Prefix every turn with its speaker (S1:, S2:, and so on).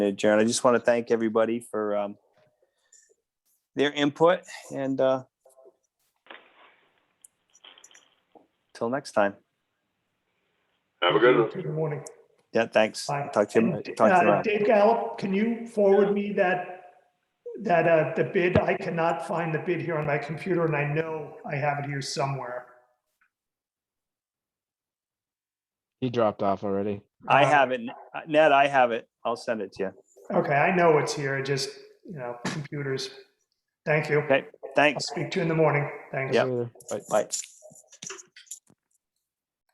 S1: Jaron, I just want to thank everybody for um, their input and uh, till next time.
S2: Have a good
S3: Mm-hmm.
S2: one.
S4: Good morning.
S1: Yeah, thanks.
S4: Bye.
S1: Talk to you.
S4: And,
S1: talk to you
S4: uh,
S1: around.
S4: Dave Gallup, can you forward me that, that, uh, the bid? I cannot find the bid here on my computer and I know I have it here somewhere.
S3: He dropped off already.
S1: I
S4: Uh,
S1: have it. Ned, I have it. I'll send it to you.
S4: Okay, I know it's here. It just, you know, computers. Thank you.
S1: Okay.
S4: I'll
S1: Thanks.
S4: speak to you in the morning. Thanks.
S1: Yep.
S3: Later. Bye.
S1: Bye.